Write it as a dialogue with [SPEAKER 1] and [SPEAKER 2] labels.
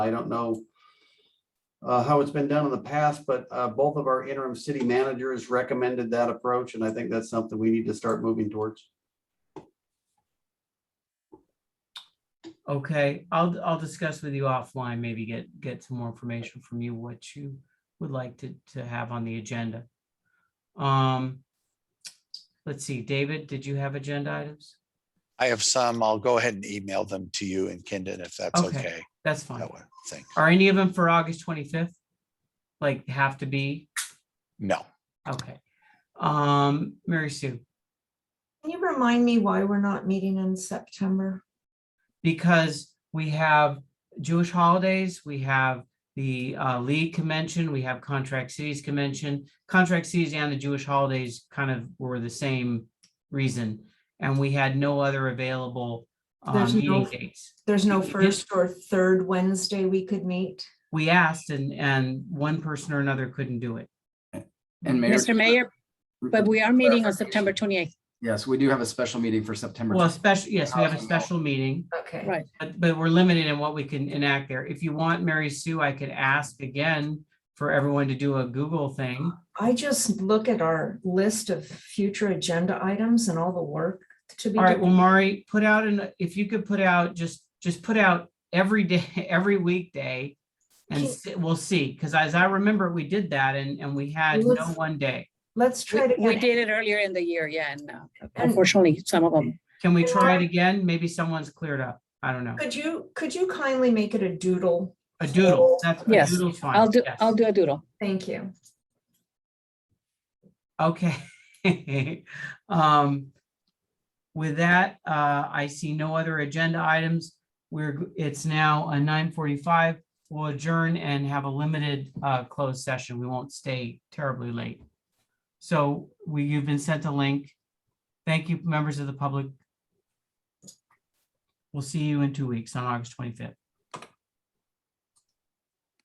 [SPEAKER 1] I don't know uh, how it's been done in the past, but uh, both of our interim city managers recommended that approach, and I think that's something we need to start moving towards.
[SPEAKER 2] Okay, I'll, I'll discuss with you offline, maybe get, get some more information from you, what you would like to, to have on the agenda. Um, let's see, David, did you have agenda items?
[SPEAKER 3] I have some. I'll go ahead and email them to you and Kendon if that's
[SPEAKER 2] Okay.
[SPEAKER 3] okay.
[SPEAKER 2] That's fine.
[SPEAKER 3] That one thing.
[SPEAKER 2] Are any of them for August twenty-fifth? Like have to be?
[SPEAKER 3] No,
[SPEAKER 2] Okay. Um, Mary Sue,
[SPEAKER 4] Can you remind me why we're not meeting in September?
[SPEAKER 2] because we have Jewish holidays, we have the uh, League Convention, we have Contract Cities Convention. Contract Cities and the Jewish holidays kind of were the same reason, and we had no other available uh,
[SPEAKER 4] There's
[SPEAKER 2] meeting
[SPEAKER 4] no-
[SPEAKER 2] dates.
[SPEAKER 4] There's no
[SPEAKER 2] Y- y-
[SPEAKER 4] first or third Wednesday we could meet?
[SPEAKER 2] We asked, and and one person or another couldn't do it.
[SPEAKER 5] And Mayor.
[SPEAKER 6] Mr. Mayor, but we are meeting on September 28th.
[SPEAKER 5] Yes, we do have a special meeting for September.
[SPEAKER 2] Well, especially, yes, we have a
[SPEAKER 5] Housing help.
[SPEAKER 2] special meeting.
[SPEAKER 4] Okay.
[SPEAKER 6] Right.
[SPEAKER 2] But, but we're limited in what we can enact there. If you want, Mary Sue, I could ask again for everyone to do a Google thing.
[SPEAKER 4] I just look at our list of future agenda items and all the work to be.
[SPEAKER 2] All right,
[SPEAKER 4] done.
[SPEAKER 2] well, Mari, put out an, if you could put out, just, just put out every day, every weekday. And
[SPEAKER 4] Can-
[SPEAKER 2] s- we'll see, because as I remember, we did that and, and we had no
[SPEAKER 4] Let's-
[SPEAKER 2] one day.
[SPEAKER 4] Let's
[SPEAKER 6] We
[SPEAKER 4] try to
[SPEAKER 6] we
[SPEAKER 4] get,
[SPEAKER 6] did it earlier in the year, yeah, and uh, unfortunately, some of them.
[SPEAKER 2] Can we
[SPEAKER 4] Can
[SPEAKER 2] try it
[SPEAKER 4] I-
[SPEAKER 2] again? Maybe someone's cleared up. I don't know.
[SPEAKER 4] could you, could you kindly make it a doodle?
[SPEAKER 2] A doodle, that's, a
[SPEAKER 6] Yes,
[SPEAKER 2] doodle's fine.
[SPEAKER 6] I'll do,
[SPEAKER 2] yes.
[SPEAKER 6] I'll do a doodle.
[SPEAKER 4] Thank you.
[SPEAKER 2] Okay. Um, With that, uh, I see no other agenda items. We're, g- it's now uh, 9:45. We'll adjourn and have a limited uh, closed session. We won't stay terribly late. So we, you've been sent a link. Thank you, members of the public. We'll see you in two weeks on August 25th.